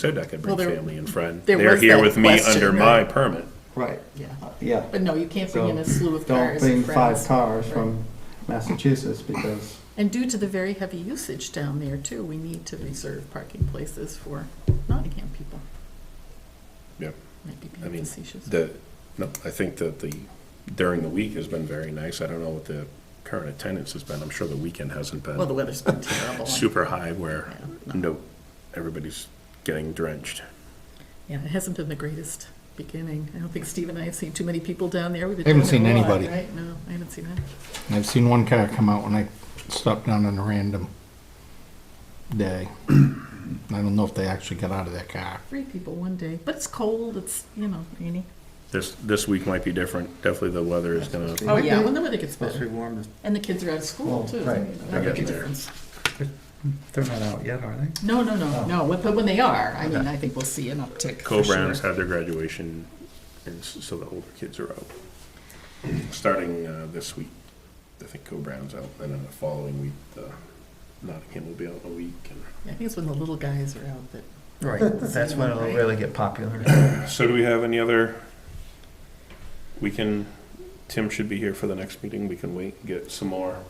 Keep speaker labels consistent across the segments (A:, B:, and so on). A: said I could bring
B: Well, there-
A: family and friend.
B: there
A: They're
B: was
A: here
B: that
A: with me
B: question,
A: under my
B: right?
A: permit.
C: Right,
B: Yeah.
C: yeah.
B: But no, you can't bring
C: So
B: in a slew of
C: Don't
B: cars
C: bring
B: and
C: five
B: friends.
C: cars from Massachusetts because,
B: And due to the very heavy usage down there too, we need to reserve parking places for Nottingham people.
A: Yep.
B: Might be
A: I
B: being
A: mean,
B: facetious.
A: The, no, I think that the, during the week has been very nice. I don't know what the current attendance has been. I'm sure the weekend hasn't
B: Well, the
A: been
B: weather's been terrible.
A: super high where,
B: Yeah, no.
A: no, everybody's getting drenched.
B: Yeah, it hasn't been the greatest beginning. I don't think Steve and I have seen too many people down there. We've been
D: Haven't
B: down there
D: seen
B: a lot,
D: anybody.
B: Right? No, I haven't seen that.
D: And I've seen one car come out when I stopped down on a random day. I don't know if they actually got out of their car.
B: Three people one day, but it's cold. It's, you know, rainy.
A: This, this week might be different. Definitely the weather is gonna,
C: Oh,
B: yeah,
C: yeah.
B: when the weather gets
C: supposed to be
B: better.
C: warm, this-
B: And the kids are out of school
C: Well,
B: too.
C: right.
B: That'll make a
A: Yeah.
B: difference.
C: they're not out yet, are they?
B: No, no, no,
C: Oh.
B: no. But but when they are, I mean, I think we'll see an uptick. for sure.
A: Co-Browns had their graduation, and s- so the older kids are out. Starting uh, this week, I think Co-Browns out, and then the following week, uh, Nottingham will be out a week.
B: I think it's when the little guys are out that.
C: Right, that's when it'll really get popular.
A: and- So do we have any other, we can, Tim should be here for the next meeting, we can wait, and get some more.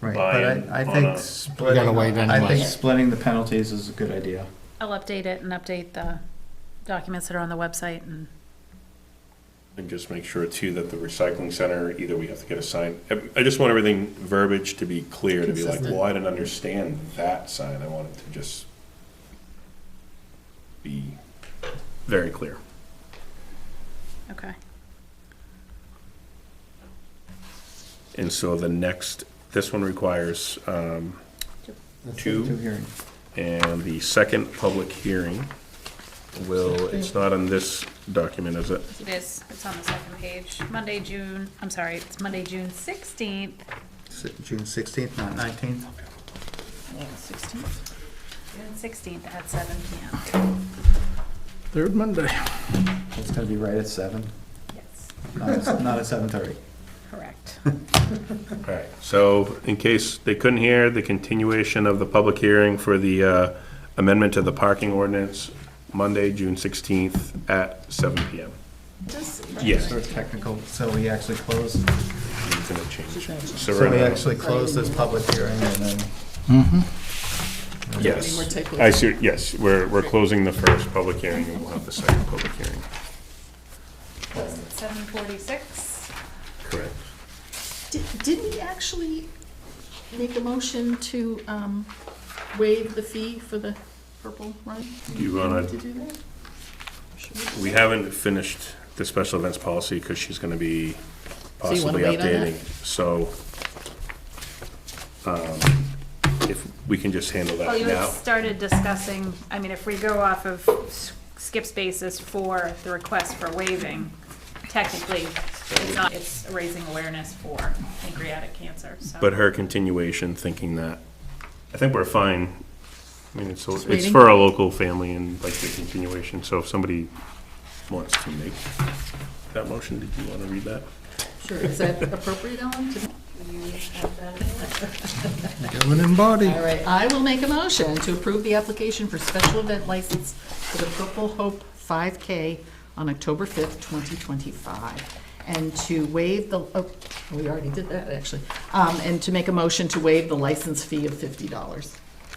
C: Right, but I, I
A: Buy-in on
C: think
A: a-
D: We gotta
C: splitting,
D: wait
C: I think
D: anyway.
C: splitting the penalties is a good idea.
E: I'll update it and update the documents that are on the website and
A: And just make sure too that the recycling center, either we have to get a sign, I- I just want everything verbiage to be clear, to be like,
B: Consistent.
A: well, I didn't understand that sign, I want it to just be very clear.
E: okay.
A: And so the next, this one requires, um, Two.
C: Two hearings.
A: and the second public hearing will, it's not on this document, is it?
E: It is, it's on the second page, Monday, June, I'm sorry, it's Monday, June sixteenth.
C: Si- June sixteenth, not nineteenth.
B: Sixteenth.
E: June sixteenth at seven P M.
D: Third Monday.
C: It's gonna be right at seven,
E: Yes,
C: not at, not at seven thirty.
E: correct.
A: All right, so in case they couldn't hear, the continuation of the public hearing for the uh, amendment to the parking ordinance, Monday, June 16th at 7 PM.
B: Just-
A: Yes.
C: Sort of technical, so we actually close,
A: It's gonna change. So
C: so
A: we're
C: we
A: gonna-
C: actually close this public hearing and then.
B: Any more
A: Yes,
B: takeaways?
A: I see, yes, we're, we're closing the first public hearing, and we'll have the second public hearing.
E: Seven forty-six,
A: Correct.
B: Did, did we actually make a motion to um, waive the fee for the purple run?
A: Do you
B: Did
A: wanna-
B: we do that? Should we?
A: We haven't finished the special events policy, because she's gonna be
B: So you wanna
A: possibly
B: wait on that?
A: updating, so um, if we can just handle
E: well,
A: that
E: Oh, you had
A: now.
E: started discussing, I mean, if we go off of s- skip's basis for the request for waiving, technically, it's not, it's raising awareness for pancreatic cancer, so.
A: But her continuation, thinking that, I think we're fine. I mean, it's, it's
B: waiting.
A: for a local family and like the continuation, so if somebody wants to make that motion, did you want to read that?
B: Sure, is that appropriate, Ellen? to-
D: in body.
B: All right, I will make a motion to approve the application for special event license for the Purple Hope 5K on October 5th, 2025, and to waive the, oh, we already did that, actually, Um, and to make a motion to waive the license fee of $50.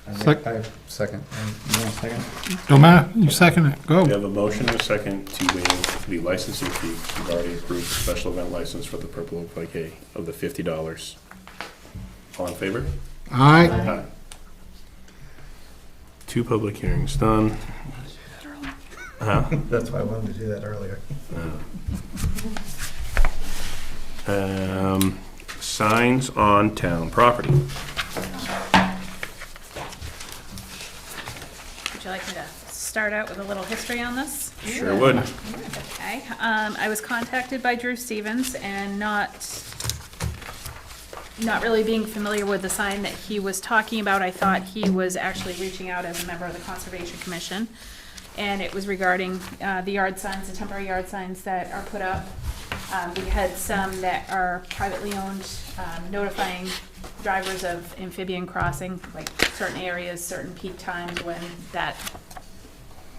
C: I
D: Sec-
C: think- I second, you want a second?
D: Don't matter, you second it,
A: We
D: go.
A: have a motion and a second to waive the licensing fee. We've already approved the special event license for the Purple Oak Bouquet of the fifty dollars. All in favor?
D: Aye.
A: Aye. Two public hearings done.
C: That's why I wanted to do that earlier.
A: Um, signs on town property.
E: Would you like me to start out with a little history on this?
A: Sure would.
E: Okay, um, I was contacted by Drew Stevens and not, not really being familiar with the sign that he was talking about, I thought he was actually reaching out as a member of the Conservation Commission. And it was regarding, uh, the yard signs, the temporary yard signs that are put up. Um, we had some that are privately owned, um, notifying drivers of amphibian crossing, like certain areas, certain peak times when that